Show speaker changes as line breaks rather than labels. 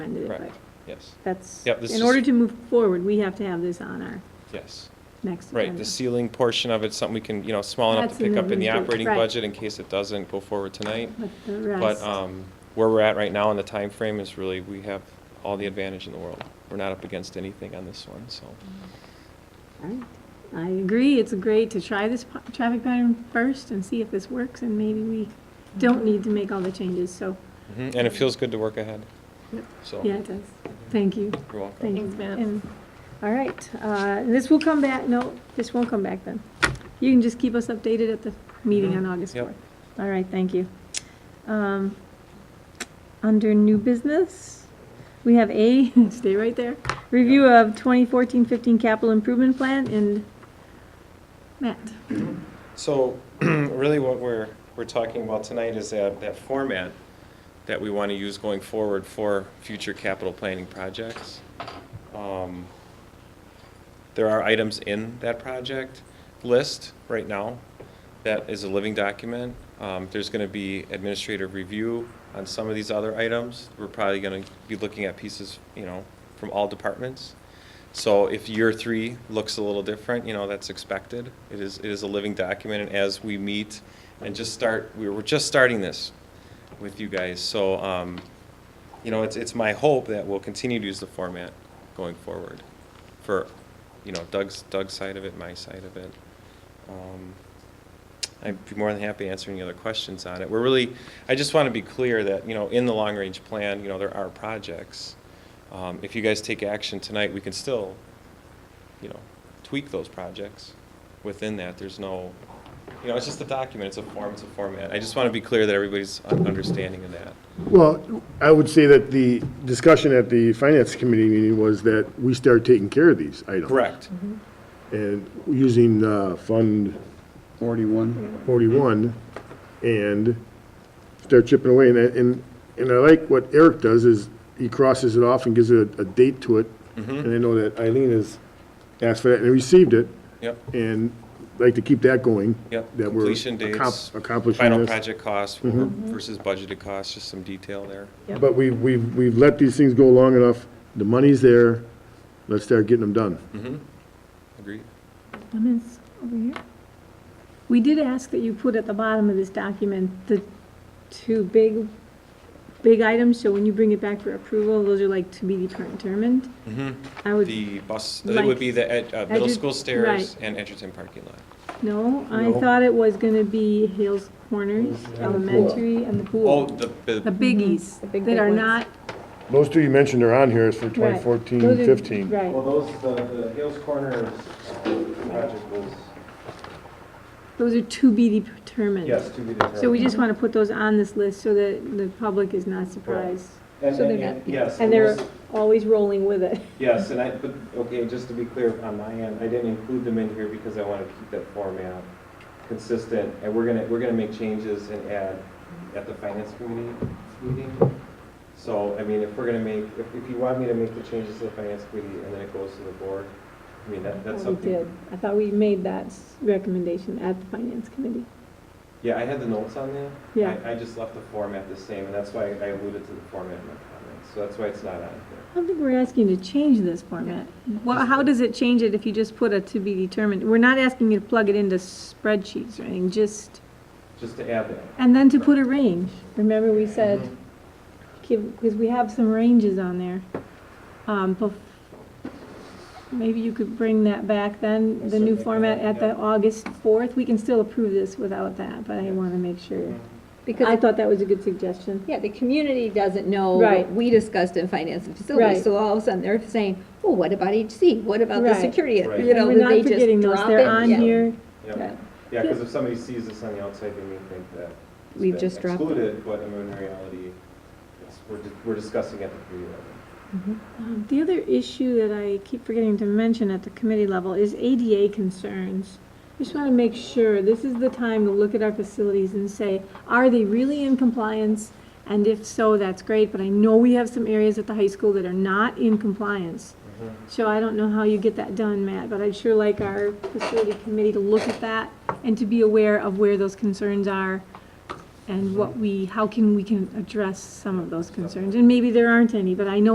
end of it,
Correct.
but
Yes,
that's,
Yep, this
in order
is-
to move forward, we have to have this on our
yes.
next agenda.
Right, the ceiling portion of it, something we can, you know, small enough to
That's in
pick
the
up in the
reboot,
operating
right.
budget in case it doesn't go forward tonight.
But the
But
rest,
um, where we're at right now in the time frame is really, we have all the advantage in the world. We're not up against anything on this one, so.
all right. I agree, it's great to try this po- traffic pattern first and see if this works, and maybe we don't need to make all the changes, so,
Mhm, And it feels good to work ahead.
Yep.
So,
yeah,
you're
it does. Thank you.
welcome.
Thank you.
Thanks, Matt.
And- All right, uh, this will come back, no, this won't come back then. You can just keep us updated at the meeting on August
Mm-hmm. Yep.
4th. All right, thank you. Um, Under new business, we have A, stay right there, review of 2014-15 capital improvement plan and Matt.
So really what we're, we're talking about tonight is that, that format that we want to use going forward for future capital planning projects. Um, There are items in that project list right now that is a living document. Um, There's going to be administrative review on some of these other items. We're probably going to be looking at pieces, you know, from all departments. So if year three looks a little different, you know, that's expected. It is, it is a living document, and as we meet and just start, we were just starting this with you guys, so, um, you know, it's, it's my hope that we'll continue to use the format going forward for, you know, Doug's, Doug's side of it, my side of it. Um, I'd be more than happy to answer any other questions on it. We're really, I just want to be clear that, you know, in the long-range plan, you know, there are projects. Um, If you guys take action tonight, we can still, you know, tweak those projects within that. There's no, you know, it's just a document, it's a form, it's a format. I just want to be clear that everybody's un- understanding of that.
Well, I would say that the discussion at the finance committee meeting was that we start taking care of these items.
Correct.
And using uh, Fund
41.
41 and start chipping away. And, I- and, and I like what Eric does is he crosses it off and gives it a, a date to it.
Mm-hmm.
And I know that Eileen has asked for that and received it
Yep,
and like to keep that going.
yep.
That we're
Completion dates,
accom- accomplishing
final
this. Mm-hmm.
project costs
Mm-hmm.
versus budgeted costs, just some detail there.
But we, we've, we've let these things go long enough, the money's there, let's start getting them done.
Mm-hmm. Agreed?
Comments over here? We did ask that you put at the bottom of this document the two big, big items, so when you bring it back for approval, those are like to be determined. I would,
Mm-hmm. The bus, it would be the ed- uh, middle
Edu-
school stairs
right.
and Edgerton parking lot.
no, I
No.
thought it was gonna be Hales Corners Elementary and the pool.
Oh, the,
The
the,
biggies
Mm-hmm. The big,
that
big
are
ones.
not.
Those two you mentioned are on here is for
right.
2014,
Those are-
15.
Right,
those, the, the Hills Corners uh, project was,
those are to be determined.
to be determined.
So we just wanna put those on this list so that the public is not surprised.
And,
So they're
and-
not-
yes.
And they're
those-
always rolling with it.
Yes, and I, but, okay, just to be clear on my end, I didn't include them in here because I want to keep that format consistent. And we're gonna, we're gonna make changes and add at the finance committee meeting. So, I mean, if we're gonna make, if, if you want me to make the changes to the finance committee and then it goes to the board, I mean, that, that's
Well, Oh, We
something.
did. I thought we made that s- recommendation at the finance committee.
Yeah, I had the notes on that.
Yeah.
I, I just left the format the same, and that's why I alluded to the format in my comments, so that's why it's not on here.
I don't think we're asking you to change this format. Well, how does it change it if you just put a to be determined? We're not asking you to plug it into spreadsheets or anything, just,
Just to add that.
and then to put a range. Remember we said,
Mm-hmm.
because we have some ranges on there. Um, bef- Maybe you could bring that back then, the new
Certainly can,
format at the
yeah.
August 4th. We can still approve this without that, but I want to make sure. I
Because,
thought that was a good suggestion.
yeah, the community doesn't know
Right.
what we discussed in finance and
Right.
facilities. So all of a sudden, they're saying, well, what about HC? What about the
Right.
security?
Right.
You
And
know,
we're
that
not
they just
forgetting those.
drop
They're
it.
on
Yeah.
here.
Yep.
Yeah.
Yeah, because if somebody sees this on the outside, they may think that. it's
We've
been
just dropped it.
Excluded, but I mean, in reality, it's, we're, di- we're discussing at the committee level.
Um, The other issue that I keep forgetting to mention at the committee level is ADA concerns. Just want to make sure, this is the time to look at our facilities and say, are they really in compliance? And if so, that's great, but I know we have some areas at the high school that are not in compliance. So I don't know how you get that done, Matt, but I'd sure like our facility committee to look at that and to be aware of where those concerns are and what we, how can we can address some of those concerns. And maybe there aren't any, but I know